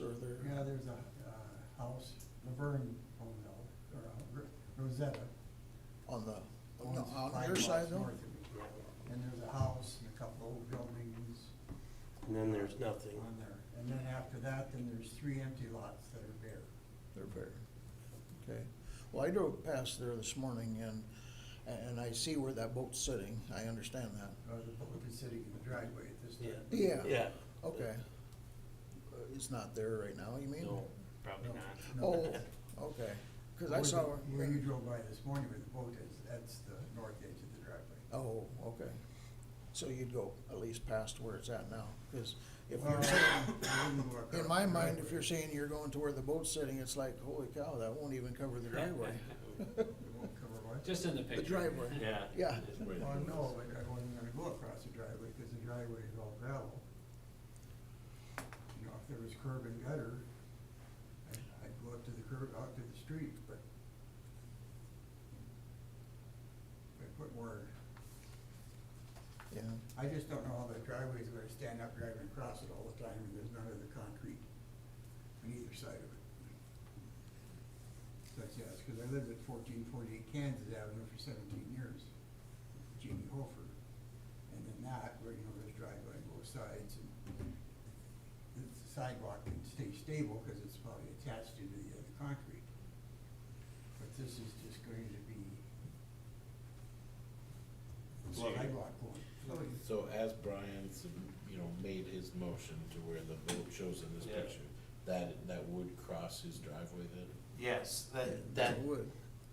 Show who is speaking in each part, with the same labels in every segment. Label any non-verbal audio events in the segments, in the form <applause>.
Speaker 1: or there,
Speaker 2: Yeah, there's a, uh, house, Laverne owned it, or uh, Ro- Rosetta.
Speaker 1: on the,
Speaker 2: owns
Speaker 1: Oh, no, on
Speaker 2: five
Speaker 1: your
Speaker 2: blocks
Speaker 1: side though?
Speaker 2: north of me. And there's a house and a couple old buildings
Speaker 3: And then there's nothing.
Speaker 2: on there. And then after that, then there's three empty lots that are bare.
Speaker 1: They're fair. Okay. Well, I drove past there this morning and, and I see where that boat's sitting. I understand that.
Speaker 2: Uh, the boat is sitting in the driveway at this time.
Speaker 1: Yeah.
Speaker 3: Yeah.
Speaker 1: Okay. Uh, It's not there right now, you mean?
Speaker 3: No, probably
Speaker 2: No,
Speaker 3: not.
Speaker 2: no.
Speaker 1: Oh, <laughs> okay. Cause I
Speaker 2: Where
Speaker 1: saw.
Speaker 2: the- Where you drove by this morning where the boat is, that's the north edge of the driveway.
Speaker 1: Oh, okay. So you'd go at least past where it's at now, cause if
Speaker 2: Well,
Speaker 1: you're saying,
Speaker 2: I wouldn't go across
Speaker 1: in my
Speaker 2: the
Speaker 1: mind, if
Speaker 2: driveway.
Speaker 1: you're saying you're going to where the boat's sitting, it's like, holy cow, that won't even cover the driveway.
Speaker 2: It won't cover what?
Speaker 4: Just in the picture.
Speaker 1: driveway.
Speaker 3: Yeah.
Speaker 1: Yeah.
Speaker 2: Well, no, but I wasn't gonna go across the driveway, cause the driveway is all gravel. You know, if there was curb and gutter, I'd, I'd go up to the curb, out to the street, but. I put more,
Speaker 1: <laughs> Yeah,
Speaker 2: I just don't know how the driveway's gonna stand up driving across it all the time, and there's none of the concrete on either side of it. So, that's- yeah, it's cause I lived at fourteen forty-eight Kansas Avenue for seventeen years, with Jimmy Hofer. And then that, where, you know, there's driveway on both sides, and the sidewalk can stay stable, cause it's probably attached to the, uh, the concrete. But this is just going to be
Speaker 5: So you-
Speaker 2: sidewalk going.
Speaker 5: So as Brian's, you know, made his motion to where the vote shows in this
Speaker 3: Yeah.
Speaker 5: picture, that, that would cross his driveway then?
Speaker 3: Yes, that, that,
Speaker 1: it would.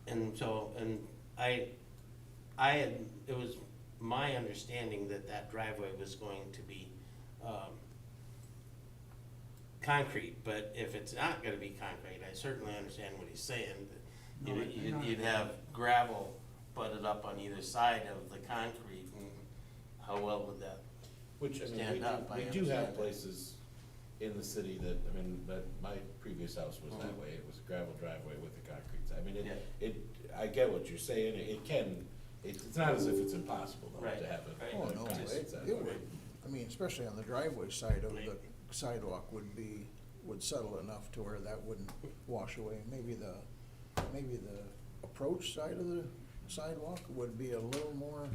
Speaker 3: and so, and I, I had, it was my understanding that that driveway was going to be, um, concrete, but if it's not gonna be concrete, I certainly understand what he's saying. that
Speaker 2: No,
Speaker 3: you-
Speaker 2: it's
Speaker 3: You'd,
Speaker 2: not.
Speaker 3: you'd have gravel butted up on either side of the concrete, and how well would that,
Speaker 5: Which, I mean, we
Speaker 3: Stand up, I
Speaker 5: do, we do have
Speaker 3: understand.
Speaker 5: places in the city that, I mean, but my previous house was that
Speaker 3: Uh-huh.
Speaker 5: way, it was a gravel driveway with a concrete, side. I mean, it, it, I get what you're saying, it can, it- it's not as if it's impossible though
Speaker 3: Right,
Speaker 5: to have
Speaker 3: right.
Speaker 5: a.
Speaker 1: Oh, no,
Speaker 5: a
Speaker 1: it,
Speaker 5: distance that
Speaker 1: it
Speaker 5: way.
Speaker 1: would. I mean, especially on the driveway side of the
Speaker 3: Right.
Speaker 1: sidewalk would be, would settle enough to where that wouldn't wash away. Maybe the, maybe the approach side of the sidewalk would be a little more,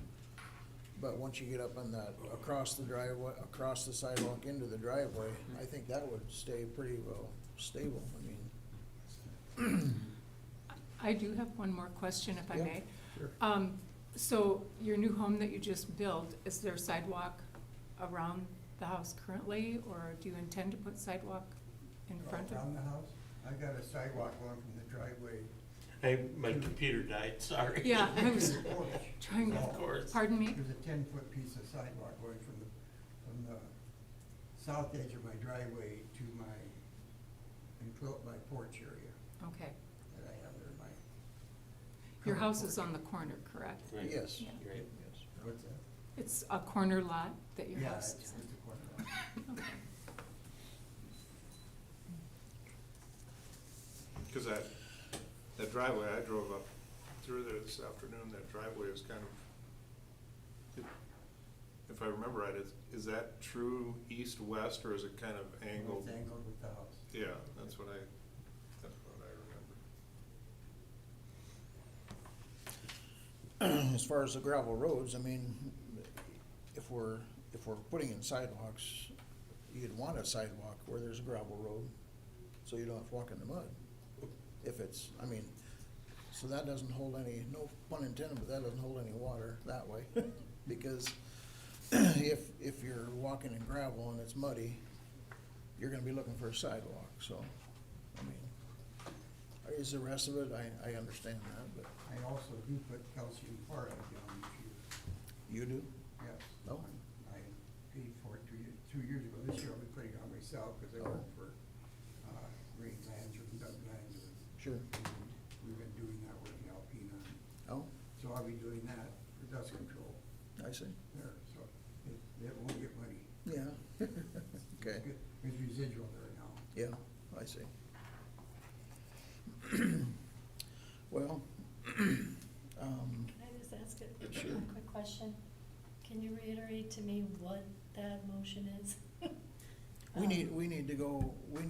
Speaker 1: but once you get up on that, across the driveway, across the sidewalk into the driveway, I think that would stay pretty well stable, I mean.
Speaker 6: I do have one more question, if I
Speaker 1: Yeah,
Speaker 6: may.
Speaker 1: sure.
Speaker 6: Um, so your new home that you just built, is there sidewalk around the house currently, or do you intend to put sidewalk in front of?
Speaker 2: Around the house, I got a sidewalk going from the driveway.
Speaker 3: hey, my computer died, <laughs> sorry.
Speaker 6: Yeah, I
Speaker 2: to
Speaker 6: was
Speaker 2: the porch.
Speaker 6: trying
Speaker 3: Of
Speaker 6: to,
Speaker 3: course.
Speaker 6: pardon me?
Speaker 2: There's a ten-foot piece of sidewalk going from the, from the south edge of my driveway to my, enclo- my porch area
Speaker 6: Okay.
Speaker 2: that I have there, my.
Speaker 6: Your
Speaker 2: covered
Speaker 6: house is
Speaker 2: porch.
Speaker 6: on the corner, correct?
Speaker 3: Right.
Speaker 1: Yes.
Speaker 6: Yeah.
Speaker 3: Right.
Speaker 1: Yes.
Speaker 2: What's that?
Speaker 6: It's a corner lot that your
Speaker 2: Yeah,
Speaker 6: house
Speaker 2: it's
Speaker 6: is
Speaker 2: just a corner lot.
Speaker 6: on? Okay.
Speaker 7: Because that, that driveway, I drove up through there this afternoon, that driveway is kind of, if I remember right, is, is that true east-west, or is it kind of angled?
Speaker 2: It's angled with the house.
Speaker 7: Yeah, that's what I, that's what I remember.
Speaker 1: <clears throat> as far as the gravel roads, I mean, if we're, if we're putting in sidewalks, you'd want a sidewalk where there's a gravel road, so you don't have to walk in the mud. If it's, I mean, so that doesn't hold any, no pun intended, but that doesn't hold any water that way. Because <clears throat> if, if you're walking in gravel and it's muddy, you're gonna be looking for a sidewalk, so, I mean, is the rest of it, I, I understand that, but
Speaker 2: I also do put calcium chloride down if you,
Speaker 1: you do?
Speaker 2: yes.
Speaker 1: Oh.
Speaker 2: I paid for it two years, two years ago, this year I'll be putting it on myself, cause
Speaker 1: Oh.
Speaker 2: I work for, uh, Green Lands or Doug Lands or.
Speaker 1: Sure.
Speaker 2: and We've been doing that with the Alpena,
Speaker 1: Oh,
Speaker 2: so I'll be doing that for dust control
Speaker 1: I see.
Speaker 2: there, so it, it won't get muddy.
Speaker 1: Yeah. <laughs> Okay,
Speaker 2: Good. There's residual there now.
Speaker 1: yeah, I see. <clears throat> Well, <clears throat> um,
Speaker 8: Can I just ask a
Speaker 1: Sure.
Speaker 8: a quick question? Can you reiterate to me what that motion is? <laughs>
Speaker 1: we
Speaker 8: Um,
Speaker 1: need, we need to go, we